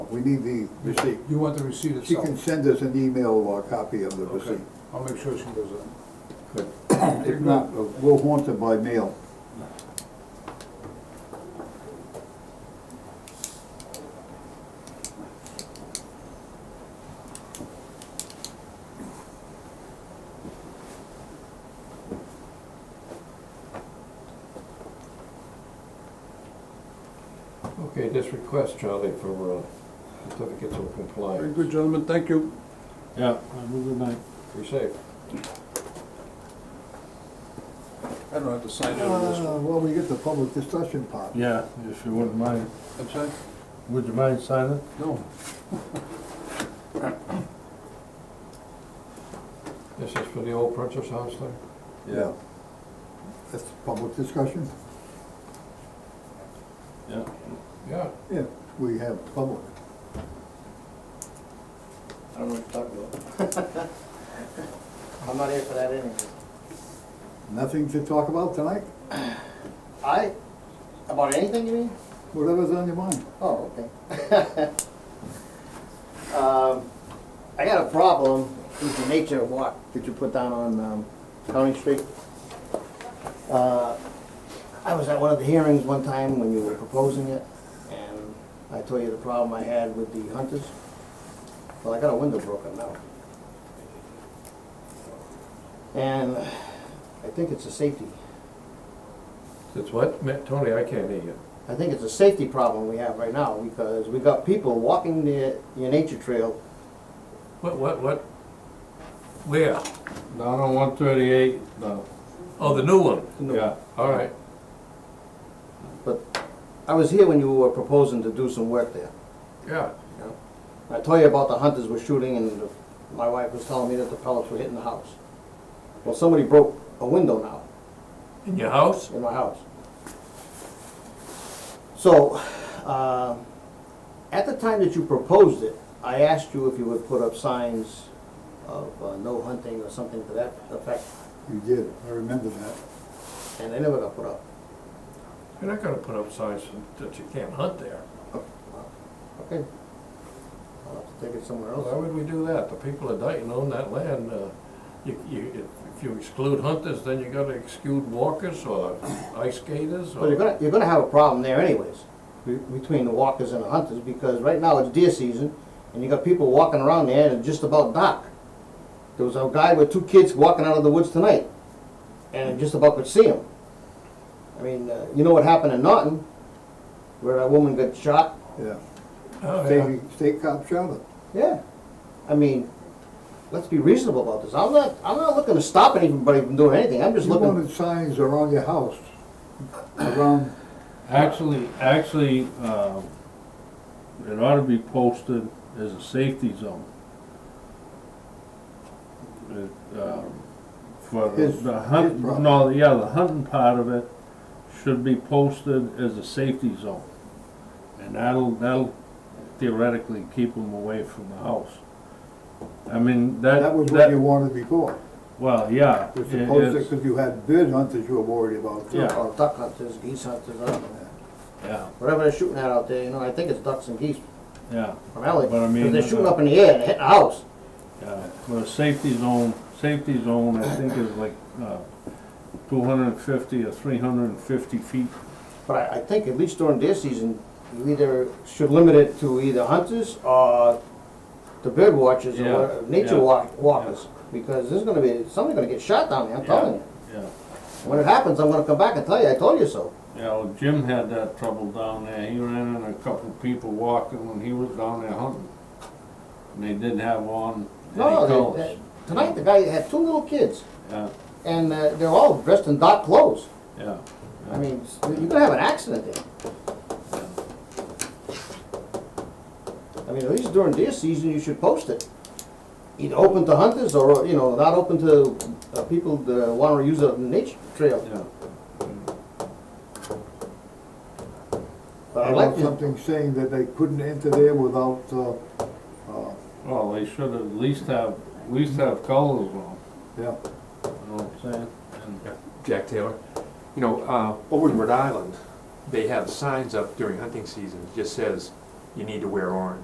we need the receipt. You want the receipt She can itself? send us an email or a copy of the Okay, receipt. I'll make sure she does that. Good. If not, we'll want it by mail. Okay, this request, Charlie, for uh, certificates of Very compliance. good, gentlemen, thank you. Yeah, I move the night. Be safe. I don't have to sign it on this Uh, one. Well, we get the public discussion part. Yeah, if you wouldn't mind, That's it? would you mind signing? No. This is for the old Princess House there? Yeah. That's public discussion? Yeah. Yeah. Yeah, we have public. I don't know what you're talking about. I'm not here for that anyway. Nothing to talk about tonight? I, about anything you mean? Whatever's on your mind. Oh, okay. Um, I got a problem with the nature walk that you put down on um, County Street. Uh, I was at one of the hearings one time when you were proposing it, and I told you the problem I had with the hunters. Well, I got a window broken now. And I think it's a safety, It's what? Ma- Tony, I can't hear you. I think it's a safety problem we have right now, because we got people walking the, your nature trail What, what, what? Where? Down on one thirty-eight, no, Oh, the new one? yeah. All right. But I was here when you were proposing to do some work there. Yeah. I told you about the hunters were shooting and the- my wife was telling me that the pellets were hitting the house. Well, somebody broke a window now In your house? in my house. So, uh, at the time that you proposed it, I asked you if you would put up signs of uh, no hunting or something to that effect, You did, I remember that. and they never got put up. You're not gonna put up signs that you can't hunt there. Okay. I'll have to take it somewhere Why else. would we do that? The people of Dayton own that land. uh, You, you, if- if you exclude hunters, then you gotta exclude walkers or ice skaters Well, you're or... gonna, you're gonna have a problem there anyways, be- between the walkers and the hunters, because right now it's deer season, and you got people walking around there and it's just about dark. There was a guy with two kids walking out of the woods tonight, and just about could see him. I mean, uh, you know what happened in Norton, where that woman got shot? Yeah. Oh, yeah. State, state cop shot it. Yeah. I mean, let's be reasonable about this, I'm not, I'm not looking to stop anybody from doing anything, I'm just You looking, wanted signs around your house, around, Actually, actually, um, it ought to be posted as a safety zone. It, um, For the- His- the his hunt, problem. no, yeah, the hunting part of it should be posted as a safety zone. And that'll, that'll theoretically keep them away from the house. I mean, that, that was what you that, wanted before. well, yeah. Was it- supposed it's- because you had bird hunters you were worried about too. Yeah. or duck hunters, geese hunters, I don't know. Yeah, whatever they're shooting at out there, you know, I think it's ducks and geese yeah. from Ellie. But I mean, they're uh, shooting up in the air and hitting a house. Yeah, well, safety zone, safety zone, I think is like, uh, two hundred and fifty or three hundred and fifty feet. But I, I think at least during their season, you either should limit it to either hunters or the bird watchers Yeah, or what- nature yeah, walk, walkers. Because there's gonna be, somebody's gonna get shot down there, I'm telling you. Yeah, When it happens, I'm gonna come back and tell you, I told you so. yeah, well, Jim had that trouble down there, he ran into a couple people walking when he was down there hunting. And they did have one, and he No, calls, they- they- tonight the guy had two little kids yeah, and uh, they're all dressed in dark clothes. yeah. I mean, you're gonna have an accident there. I mean, at least during deer season, you should post it. Either open to hunters or, you know, not open to uh, people that wanna use a nature trail. Yeah, But I I'd like want to, something saying that they couldn't enter there without, uh, uh, well, they should at least have, at least have colors on, yeah. you know what I'm saying? And Jack Taylor. You know, uh, over in Rhode Island, they have signs up during hunting season, that just says, you need to wear orange.